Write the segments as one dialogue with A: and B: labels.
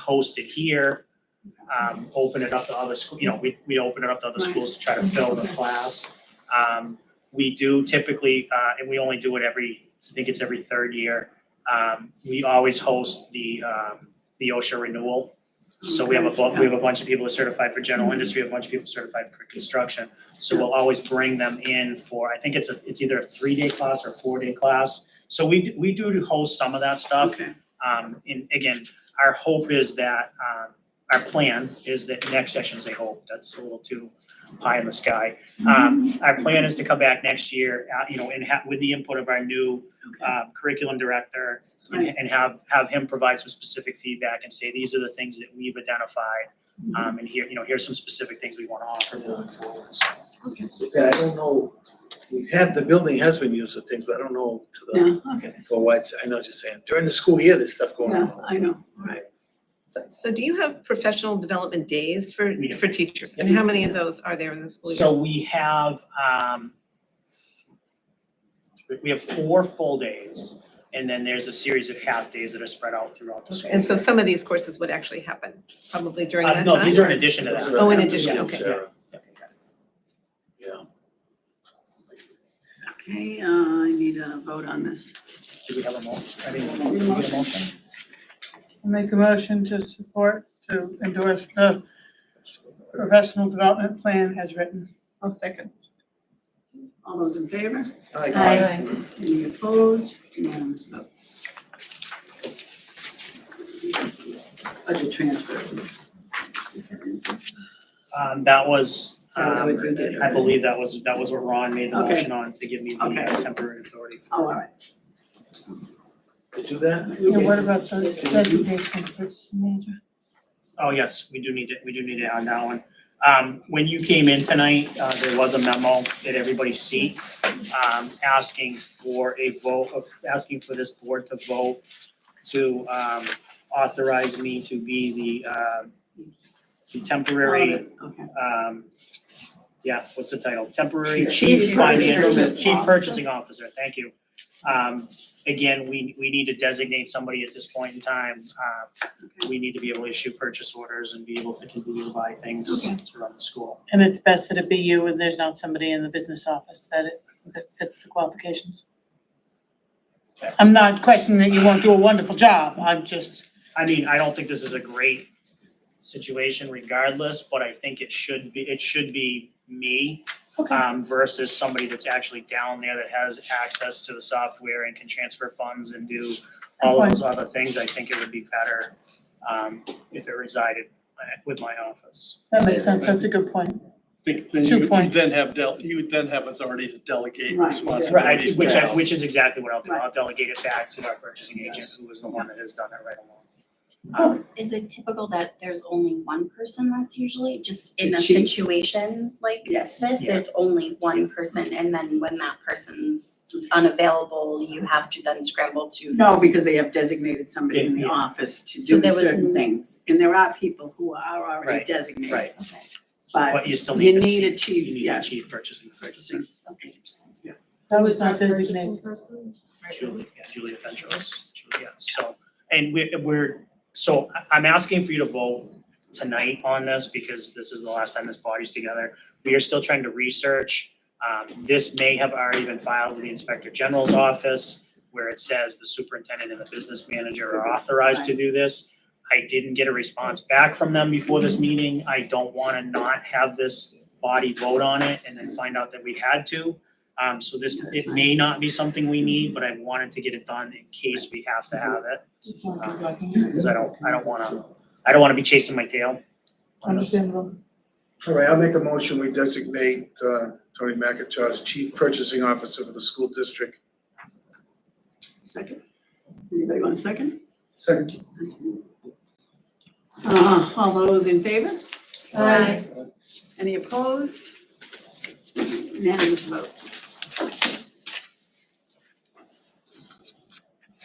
A: host it here, um, open it up to other school, you know, we, we open it up to other schools to try to fill the class. Um, we do typically, uh, and we only do it every, I think it's every third year. Um, we always host the, um, the OSHA renewal. So we have a, bu- we have a bunch of people that are certified for general industry, a bunch of people certified for construction. So we'll always bring them in for, I think it's a, it's either a three-day class or a four-day class. So we, d- we do host some of that stuff.
B: Okay,
A: Um, and again, our hope is that, um, our plan is that next session's a hope, that's a little too high in the sky. Um, our plan is to come back next year, uh, you know, and have, with the input of our new,
B: okay,
A: uh, curriculum director and and have, have him provide some specific feedback and say, these are the things that we've identified. Um, and here, you know, here's some specific things we wanna offer moving forward, so.
B: okay.
C: Yeah, I don't know, we have, the building has been used for things, but I don't know to the,
A: Uh,
B: No, okay,
C: for what, I know what you're saying, during the school year, there's stuff going
B: no,
C: on.
B: I know, all right.
D: So, so do you have professional development days for,
A: We do.
D: for teachers? And how many of those are there in the school year?
A: So we have, um, th- we have four full days, and then there's a series of half days that are spread out throughout the school.
D: And so some of these courses would actually happen probably during
A: Uh,
D: that time?
A: no, these are in addition to that.
D: Oh, in addition, okay.
C: Sarah. Yeah.
B: Okay, uh, I need a vote on this.
A: Do we have a motion? I mean, do we get a motion?
E: Make a motion to support, to endorse the professional development plan as written.
D: I'll second.
B: All those in favor?
C: Like,
F: Aye.
B: Any opposed? Unanimous vote. Budget transfer.
A: Um, that was,
B: That was
A: um,
B: what you did.
A: I believe that was, that was what Ron made the
B: Okay.
A: motion on to give me the
B: Okay.
A: uh, temporary authority. for-
B: Oh, all right.
C: to do that?
E: And what about the designation for major?
A: Oh, yes, we do need it, we do need it on that one. Um, when you came in tonight, uh, there was a memo that everybody see, um, asking for a vote, of asking for this board to vote to, um, authorize me to be the, uh, the temporary,
B: Okay.
A: um, yeah, what's the title? Temporary
B: Chief
A: Chief Financial,
B: Purchasing
A: Chief
B: Officer.
A: Purchasing Officer, thank you. Um, again, we, we need to designate somebody at this point in time, uh, we need to be able to issue purchase orders and be able to continue to buy things
B: Okay.
A: to run the school.
E: And it's best that it be you and there's not somebody in the business office that it, that fits the qualifications. I'm not questioning that you won't do a wonderful job, I'm just,
A: I mean, I don't think this is a great situation regardless, but I think it should be, it should be me
E: okay,
A: um, versus somebody that's actually down there that has access to the software and can transfer funds and do all of those other things. I think it would be better um, if it resided with my office.
E: that makes sense, that's a good point.
G: think then
E: Two
G: you you
E: points.
G: then have del, you would then have authority to delegate
B: Right.
A: Right,
G: responsibilities to
A: which I,
G: us.
A: which is exactly what I'll do.
B: Right.
A: I'll delegate it back to our purchasing agent, who was the one that has done it right along.
F: Is it typical that there's only one person that's usually just in
B: The
F: a
B: chief?
F: situation like
B: Yes.
F: this?
A: Yeah.
F: There's only one person and then when that person's unavailable, you have to then scramble to.
B: No, because they have designated somebody in
A: Yeah,
B: the
A: yeah.
B: office to
F: So
B: do
F: there was
B: certain
F: n-
B: things. And there are people who are already
A: Right,
B: designated.
A: right.
F: Okay.
B: But
A: But you still need
B: you
A: to
B: need
A: see,
B: a
A: you
B: chief,
A: need
B: yeah.
A: a chief purchasing, purchasing,
E: That was not designated.
H: person?
A: Julie, yeah, Julia Ventros, Julia, so, and we, we're, so I- I'm asking for you to vote tonight on this because this is the last time this body's together. We are still trying to research, um, this may have already been filed to the Inspector General's office where it says the superintendent and the business manager are authorized to do this. I didn't get a response back from them before this meeting. I don't wanna not have this body vote on it and then find out that we had to. Um, so this, it may not be something we need, but I wanted to get it done in case we have to have it,
E: Just wanted to go back in.
A: because I don't, I don't wanna, I don't wanna be chasing my tail on this.
E: Understandable.
C: All right, I'll make a motion, we designate, uh, Tony McIntosh as Chief Purchasing Officer for the school district.
B: second. Anybody want a second?
C: Second.
B: Uh, all those in favor?
H: Aye.
B: Any opposed? Unanimous vote.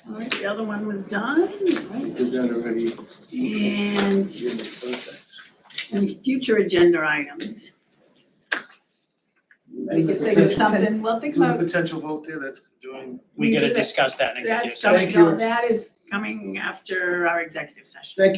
B: All right, the other one was done, right?
C: Did that already.
B: and any future agenda items? We could think of something, well, think about,
C: Potential vote there, that's doing.
A: We
B: We do
A: gotta
B: that.
A: discuss that in executive
B: that's
A: session.
B: coming,
C: Thank you.
B: that is coming after our executive session.
C: Thank